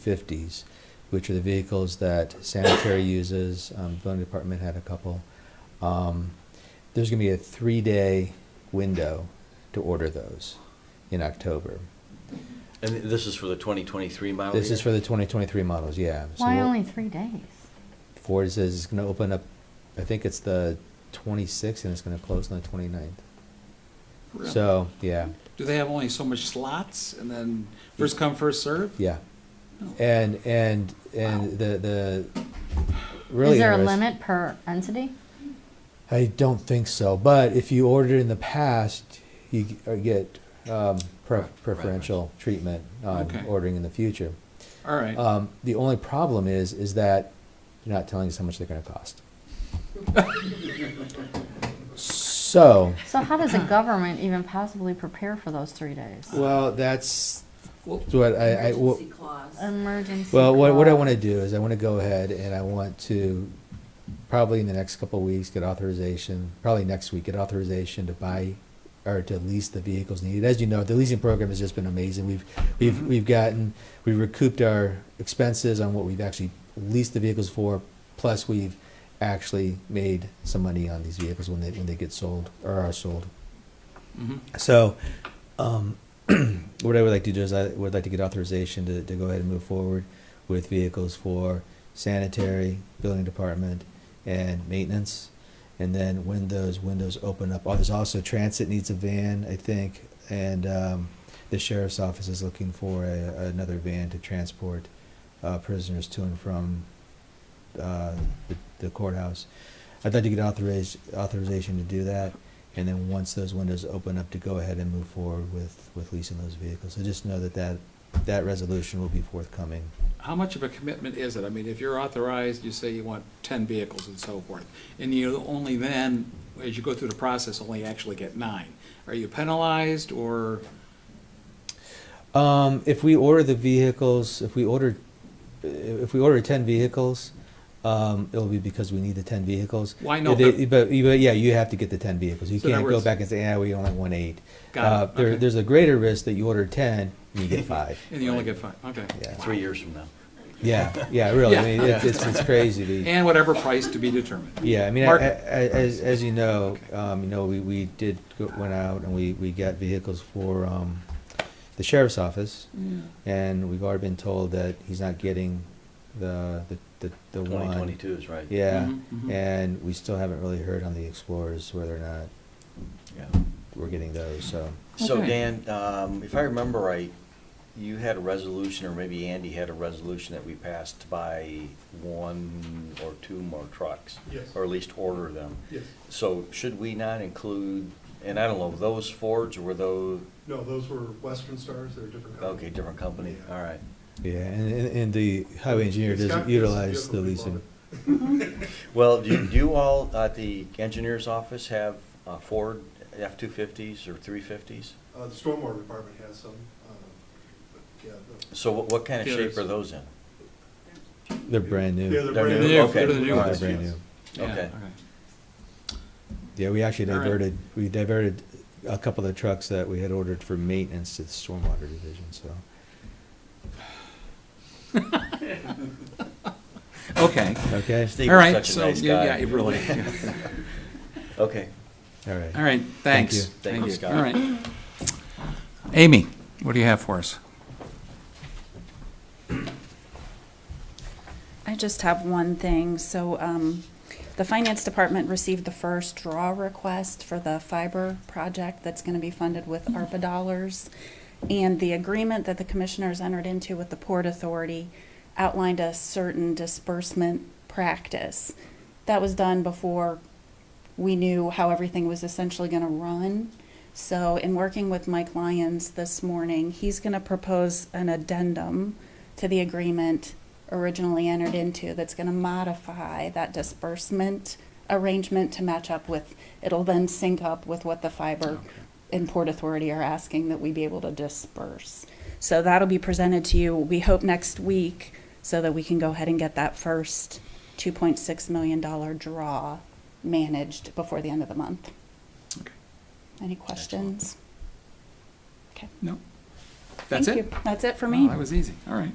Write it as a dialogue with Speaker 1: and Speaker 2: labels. Speaker 1: F-250s, which are the vehicles that sanitary uses, um, building department had a couple. Um, There's gonna be a three-day window to order those in October.
Speaker 2: And this is for the 2023 model
Speaker 1: This is for
Speaker 2: year?
Speaker 1: the 2023 models, yeah. So
Speaker 3: Why
Speaker 1: we'll-
Speaker 3: only three days?
Speaker 1: Ford says it's gonna open up, I think it's the 26th and it's gonna close on the 29th. So, yeah,
Speaker 4: Do they have only so much slots and then first come, first serve?
Speaker 1: yeah. Eh,
Speaker 4: No.
Speaker 1: And, and, and the, the, really.
Speaker 3: Is there a
Speaker 1: interest-
Speaker 3: limit per entity?
Speaker 1: I don't think so, but if you ordered in the past, you g- uh, get um, pre- preferential treatment on
Speaker 4: Okay.
Speaker 1: ordering in the future.
Speaker 4: All right.
Speaker 1: Um, the only problem is, is that you're not telling us how much they're going to cost. so,
Speaker 3: So how does a government even possibly prepare for those three days?
Speaker 1: well, that's
Speaker 4: Well,
Speaker 1: what I, I well,
Speaker 5: Emergency clause.
Speaker 3: Emergency.
Speaker 1: Well, what, what I want to
Speaker 3: clause.
Speaker 1: do is I want to go ahead and I want to, probably in the next couple of weeks, get authorization, probably next week, get authorization to buy or to lease the vehicles needed. As you know, the leasing program has just been amazing. We've, we've, we've gotten, we recouped our expenses on what we've actually leased the vehicles for, plus we've actually made some money on these vehicles when they, when they get sold or are sold.
Speaker 4: mhm.
Speaker 1: So, um, what I would like to do is I would like to get authorization to, to go ahead and move forward with vehicles for sanitary, building department, and maintenance. And then when those windows open up, oh, there's also transit needs a van, I think, and, um, the sheriff's office is looking for a, another van to transport, uh, prisoners to and from, uh, the- the courthouse. I'd like to get authoriz- authorization to do that, and then once those windows open up, to go ahead and move forward with, with leasing those vehicles. So just know that that, that resolution will be forthcoming.
Speaker 4: How much of a commitment is it? I mean, if you're authorized, you say you want ten vehicles and so forth, and you only then, as you go through the process, only actually get nine. Are you penalized or,
Speaker 1: Um, if we order the vehicles, if we order, if we order ten vehicles, um, it'll be because we need the ten vehicles.
Speaker 4: Why not?
Speaker 1: They- But, but yeah, you have to get the ten vehicles. You
Speaker 4: So in
Speaker 1: can't
Speaker 4: other
Speaker 1: go
Speaker 4: words-
Speaker 1: back and say, yeah, we only want eight.
Speaker 4: Got
Speaker 1: Uh,
Speaker 4: it.
Speaker 1: there-
Speaker 4: Okay.
Speaker 1: There's a greater risk that you order ten and you get five.
Speaker 4: and you only get five? Okay.
Speaker 1: Yeah.
Speaker 2: Three years from now.
Speaker 1: Yeah, yeah, really. I
Speaker 4: Yeah.
Speaker 1: mean, it's, it's, it's crazy to.
Speaker 4: And whatever price to be determined.
Speaker 1: Yeah, I mean, I- I- I-
Speaker 4: Market.
Speaker 1: as, as you know,
Speaker 4: Okay.
Speaker 1: um, you know, we, we did, go- went out and we, we got vehicles for, um, the sheriff's office.
Speaker 3: Mm-hmm.
Speaker 1: And we've already been told that he's not getting the, the, the- the one.
Speaker 2: 2022 is right.
Speaker 1: Yeah,
Speaker 4: Mhm, mhm.
Speaker 1: and we still haven't really heard on the Explorers whether or not
Speaker 2: Yeah.
Speaker 1: we're getting those, so.
Speaker 2: So
Speaker 4: Okay.
Speaker 2: Dan, um, if I remember right, you had a resolution, or maybe Andy had a resolution that we passed to buy one or two more trucks.
Speaker 6: Yes.
Speaker 2: Or at least order them.
Speaker 6: Yes,
Speaker 2: So should we not include, and I don't know, those Fords or were those,
Speaker 6: no, those were Western Stars, they're a different company.
Speaker 2: okay, different company,
Speaker 6: Yeah.
Speaker 2: all right.
Speaker 1: Yeah, and, and- and the highway engineer
Speaker 6: It's got-
Speaker 1: doesn't
Speaker 6: it's a
Speaker 1: utilize the
Speaker 6: vehicle we
Speaker 1: leasing.
Speaker 6: bought.
Speaker 2: Well, do you, do you all at the engineer's office have uh, Ford F-250s or 350s?
Speaker 6: Uh, the stormwater department has some, uh, but yeah. the-
Speaker 2: So what, what kind of
Speaker 4: Yeah,
Speaker 2: shape are
Speaker 4: it's-
Speaker 2: those in?
Speaker 1: They're brand
Speaker 6: Yeah,
Speaker 1: new.
Speaker 6: they're
Speaker 2: They're
Speaker 6: brand
Speaker 2: new.
Speaker 6: new.
Speaker 2: Okay. They're the new
Speaker 1: They're
Speaker 2: ones,
Speaker 1: brand
Speaker 6: yes.
Speaker 1: new.
Speaker 4: Yeah,
Speaker 2: Okay.
Speaker 4: all right.
Speaker 1: Yeah, we actually
Speaker 4: All right.
Speaker 1: diverted, we diverted a couple of trucks that we had ordered for maintenance to the stormwater division, so.
Speaker 4: Okay.
Speaker 1: Okay,
Speaker 2: Steve
Speaker 4: All
Speaker 2: is
Speaker 4: right,
Speaker 2: such a
Speaker 4: so,
Speaker 2: nice
Speaker 4: yeah,
Speaker 2: guy.
Speaker 4: yeah, it really-
Speaker 2: Okay.
Speaker 1: all right.
Speaker 4: All right,
Speaker 1: you.
Speaker 4: thanks.
Speaker 2: Thank you, Scott.
Speaker 4: All right. Amy, what do you have for us?
Speaker 7: I just have one thing. So um, the finance department received the first draw request for the fiber project that's going to be funded with ARPA dollars. And the agreement that the commissioners entered into with the Port Authority outlined a certain disbursement practice. That was done before we knew how everything was essentially going to run. So, in working with Mike Lyons this morning, he's going to propose an addendum to the agreement originally entered into that's going to modify that disbursement arrangement to match up with, it'll then sync up with what the fiber and Port Authority are asking that we be able to disperse. So that'll be presented to you, we hope next week, so that we can go ahead and get that first $2.6 million draw managed before the end of the month.
Speaker 4: Okay.
Speaker 7: Any questions? Okay.
Speaker 4: No? That's
Speaker 7: Thank
Speaker 4: it?
Speaker 7: you. That's it for
Speaker 4: Wow,
Speaker 7: me.
Speaker 4: That was easy, all right.